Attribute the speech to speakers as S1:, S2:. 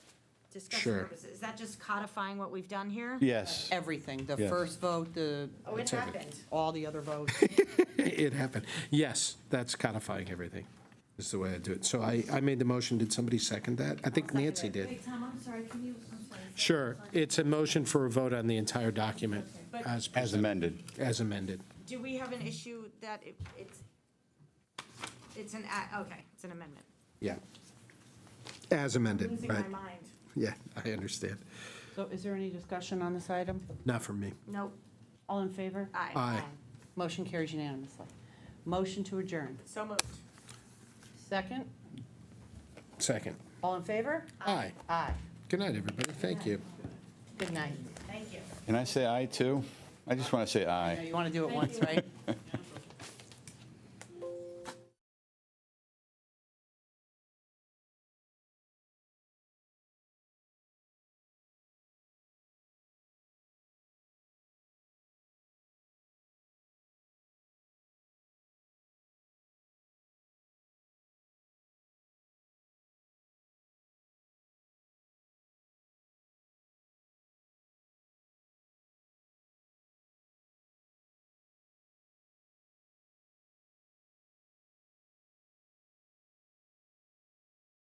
S1: discussion
S2: Sure.
S1: purposes. Is that just codifying what we've done here?
S3: Yes.
S4: Everything, the
S3: Yes.
S4: first vote, the,
S1: Oh, it happened.
S4: all the other votes.
S2: It happened. Yes, that's codifying everything, is the way I do it. So I, I made the motion. Did somebody second that? I think Nancy did.
S5: Wait, Tom, I'm sorry, can you, I'm sorry. say-
S2: Sure, it's a motion for a vote on the entire document
S1: But-
S2: as
S3: As
S2: presented,
S3: amended.
S2: as amended.
S1: Do we have an issue that it- it's, it's an, a- okay, it's an amendment.
S2: Yeah. As amended,
S1: Losing my
S2: right.
S1: mind.
S2: Yeah, I understand.
S4: So is there any discussion on this item?
S2: Not from me.
S1: Nope,
S4: All in favor?
S1: aye.
S2: Aye.
S4: Motion carries unanimously. Motion to adjourn.
S1: So moved.
S4: Second,
S2: Second.
S4: all in favor?
S2: Aye.
S4: Aye.
S2: Good night, everybody. Thank you.
S4: Good night.
S1: Thank you.
S3: Can I say aye too? I just want to say aye.
S4: You want to do it once, right?